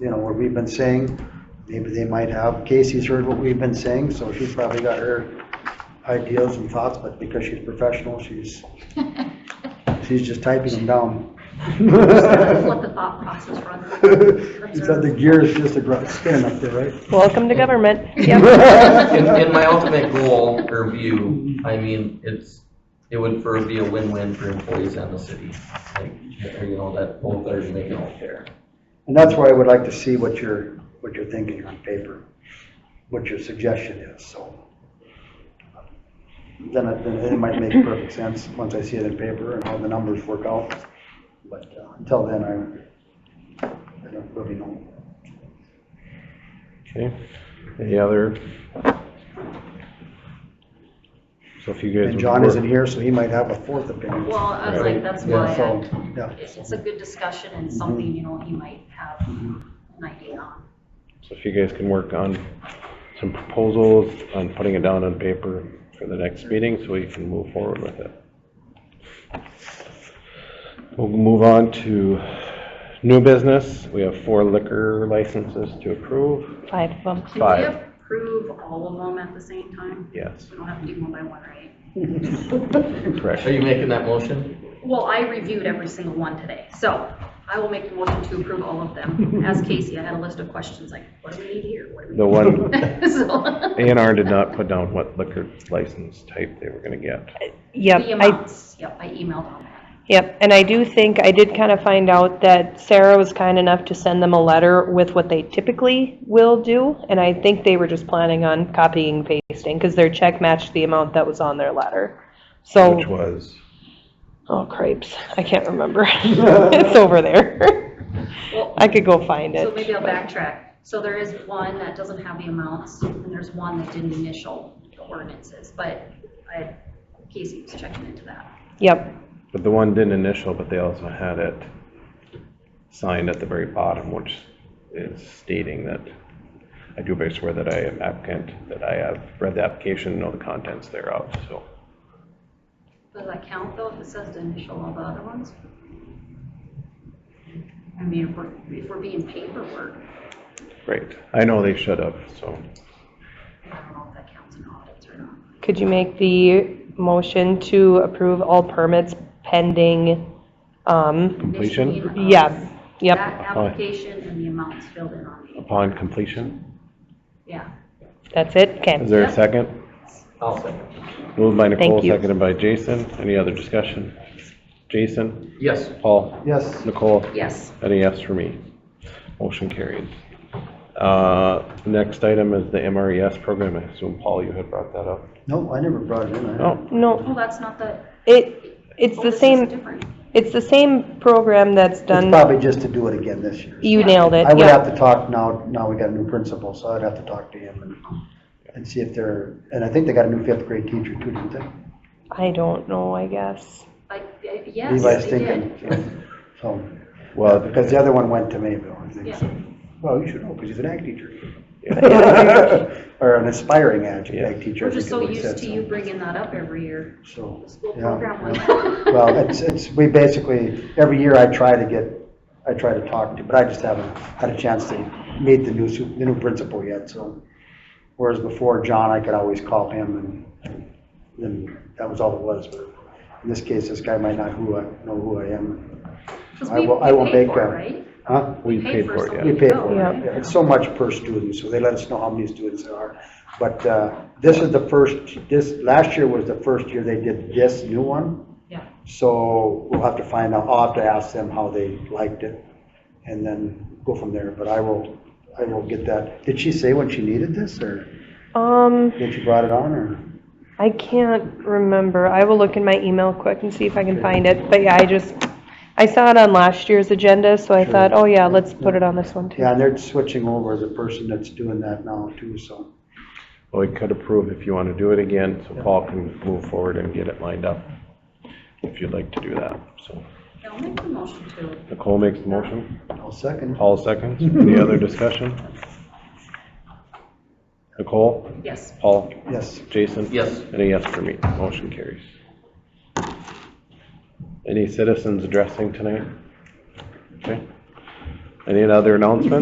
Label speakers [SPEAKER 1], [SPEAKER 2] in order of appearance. [SPEAKER 1] you know, what we've been saying. Maybe they might have, Casey's heard what we've been saying, so she's probably got her ideas and thoughts, but because she's professional, she's, she's just typing them down.
[SPEAKER 2] That's what the thought process runs.
[SPEAKER 1] She's got the gears just a gr- spinning up there, right?
[SPEAKER 3] Welcome to government.
[SPEAKER 4] In, in my ultimate goal or view, I mean, it's, it would for be a win-win for employees and the city. Like, you know, that both are making all fair.
[SPEAKER 1] And that's why I would like to see what you're, what you're thinking on paper, what your suggestion is, so. Then it, then it might make perfect sense, once I see it in paper and how the numbers work out. But uh, until then, I, I don't really know.
[SPEAKER 5] Okay, any other? So if you guys.
[SPEAKER 1] And
[SPEAKER 5] would
[SPEAKER 1] John
[SPEAKER 5] work-
[SPEAKER 1] isn't here, so he might have a fourth opinion.
[SPEAKER 2] Well, I was like, that's
[SPEAKER 1] Yeah,
[SPEAKER 2] why
[SPEAKER 1] so,
[SPEAKER 2] I,
[SPEAKER 1] yeah.
[SPEAKER 2] it's it's a good discussion and something, you know, he might have
[SPEAKER 1] Mm-hmm.
[SPEAKER 2] an idea on.
[SPEAKER 5] So if you guys can work on some proposals, on putting it down on paper for the next meeting, so we can move forward with it. We'll move on to new business. We have four liquor licenses to approve.
[SPEAKER 3] Five of them.
[SPEAKER 2] Can we
[SPEAKER 5] Five.
[SPEAKER 2] approve all of them at the same time?
[SPEAKER 5] Yes,
[SPEAKER 2] We don't have to do one by one, right?
[SPEAKER 5] correct.
[SPEAKER 4] Are you making that motion?
[SPEAKER 2] Well, I reviewed every single one today, so I will make the motion to approve all of them. As Casey, I had a list of questions like, what do we need here? What do we
[SPEAKER 5] The one,
[SPEAKER 2] need? So-
[SPEAKER 5] A and R did not put down what liquor license type they were gonna get.
[SPEAKER 3] Yep,
[SPEAKER 2] The
[SPEAKER 3] I,
[SPEAKER 2] amounts, yep, I emailed on that.
[SPEAKER 3] yep, and I do think, I did kind of find out that Sarah was kind enough to send them a letter with what they typically will do, and I think they were just planning on copying and pasting, because their check matched the amount that was on their letter.
[SPEAKER 5] Which
[SPEAKER 3] So,
[SPEAKER 5] was,
[SPEAKER 3] oh cripes, I can't remember. It's over there.
[SPEAKER 2] Well,
[SPEAKER 3] I could go find
[SPEAKER 2] so
[SPEAKER 3] it.
[SPEAKER 2] maybe I'll backtrack. So there is one that doesn't have the amounts, and there's one that didn't initial the ordinances, but I, Casey was checking into that.
[SPEAKER 3] Yep,
[SPEAKER 5] but the one didn't initial, but they also had it signed at the very bottom, which is stating that I do bear swear that I am applicant, that I have read the application, and know the contents thereof, so.
[SPEAKER 2] Does that count though, if it says to initial all the other ones? I mean, if we're, if we're being paperwork,
[SPEAKER 5] Great. I know they should have, so.
[SPEAKER 2] I don't know if that counts in audits or not.
[SPEAKER 3] could you make the motion to approve all permits pending, um,
[SPEAKER 5] Completion?
[SPEAKER 2] Initialing of
[SPEAKER 3] Yeah, yep.
[SPEAKER 2] That application and the amounts filled in on the,
[SPEAKER 5] Upon completion,
[SPEAKER 2] yeah.
[SPEAKER 3] That's it? Okay.
[SPEAKER 5] is there
[SPEAKER 2] Yeah.
[SPEAKER 5] a second?
[SPEAKER 4] I'll second.
[SPEAKER 5] Moved by Nicole,
[SPEAKER 3] Thank you.
[SPEAKER 5] seconded by Jason. Any other discussion? Jason?
[SPEAKER 4] Yes.
[SPEAKER 5] Paul?
[SPEAKER 1] Yes,
[SPEAKER 5] Nicole?
[SPEAKER 2] Yes,
[SPEAKER 5] Any yes for me? Motion carried. Uh, Next item is the MRES program. I assume, Paul, you had brought that up.
[SPEAKER 1] no, I never brought it in. I-
[SPEAKER 5] Oh,
[SPEAKER 3] No,
[SPEAKER 2] well, that's not the.
[SPEAKER 3] it, it's
[SPEAKER 2] oh,
[SPEAKER 3] the
[SPEAKER 2] this is
[SPEAKER 3] same,
[SPEAKER 2] different.
[SPEAKER 3] it's the same program that's
[SPEAKER 1] It's
[SPEAKER 3] done,
[SPEAKER 1] probably just to do it again this year.
[SPEAKER 3] you nailed it,
[SPEAKER 1] I would have
[SPEAKER 3] yeah.
[SPEAKER 1] to talk now, now we got a new principal, so I'd have to talk to him and, and see if they're, and I think they got a new fifth grade teacher too, didn't they?
[SPEAKER 3] I don't know, I guess.
[SPEAKER 2] I- I- Yes,
[SPEAKER 1] Levi's
[SPEAKER 2] they
[SPEAKER 1] thinking,
[SPEAKER 2] did.
[SPEAKER 1] so,
[SPEAKER 5] well,
[SPEAKER 1] because the other one went to Mayville, I think,
[SPEAKER 2] Yeah.
[SPEAKER 1] so. Well, you should know, because he's an ag teacher.
[SPEAKER 3] Yeah.
[SPEAKER 1] Or an aspiring ag,
[SPEAKER 5] Yeah.
[SPEAKER 1] ag teacher. I
[SPEAKER 2] We're
[SPEAKER 1] think
[SPEAKER 2] just
[SPEAKER 1] is
[SPEAKER 2] so
[SPEAKER 1] what he
[SPEAKER 2] used
[SPEAKER 1] said,
[SPEAKER 2] to you bringing that up every year,
[SPEAKER 1] So,
[SPEAKER 2] the school
[SPEAKER 1] yeah,
[SPEAKER 2] program
[SPEAKER 1] yeah.
[SPEAKER 2] one.
[SPEAKER 1] Well, it's, it's, we basically, every year I try to get, I try to talk to, but I just haven't had a chance to meet the new, su- the new principal yet, so. Whereas before, John, I could always call him and then that was all it was, but in this case, this guy might not who I, know who I am.
[SPEAKER 2] 'Cause
[SPEAKER 1] I
[SPEAKER 2] we-
[SPEAKER 1] will-
[SPEAKER 2] we
[SPEAKER 1] I will
[SPEAKER 2] paid
[SPEAKER 1] make
[SPEAKER 2] for it,
[SPEAKER 1] a-
[SPEAKER 2] right?
[SPEAKER 1] Huh?
[SPEAKER 5] We paid for it,
[SPEAKER 2] something
[SPEAKER 1] We
[SPEAKER 5] yeah.
[SPEAKER 2] to
[SPEAKER 1] pay
[SPEAKER 2] go,
[SPEAKER 1] for
[SPEAKER 2] right?
[SPEAKER 1] it. It's so much per student, so they let us know how many students there are. But uh, this is the first, this, last year was the first year they did this new one.
[SPEAKER 2] Yeah,
[SPEAKER 1] So we'll have to find out, I'll have to ask them how they liked it and then go from there. But I will, I will get that. Did she say when she needed this or
[SPEAKER 3] Um,
[SPEAKER 1] when she brought it on or?
[SPEAKER 3] I can't remember, I will look in my email quick and see if I can find it, but yeah, I just, I saw it on last year's agenda, so I
[SPEAKER 1] Sure.
[SPEAKER 3] thought, oh yeah, let's put it on this one too.
[SPEAKER 1] Yeah, and they're switching over the person that's doing that now too, so.
[SPEAKER 5] Well, we could approve if you want to do it again, so Paul can move forward and get it lined up, if you'd like to do that. So
[SPEAKER 2] Yeah, I'll make the motion to,
[SPEAKER 5] Nicole makes the motion,
[SPEAKER 1] I'll second.
[SPEAKER 5] Paul seconds. Any other discussion? Nicole?
[SPEAKER 2] yes,
[SPEAKER 5] Paul?
[SPEAKER 1] Yes.
[SPEAKER 5] Jason?
[SPEAKER 4] Yes.
[SPEAKER 5] Any yes for me? Motion carries. Any citizens addressing tonight? Okay. Any other announcements?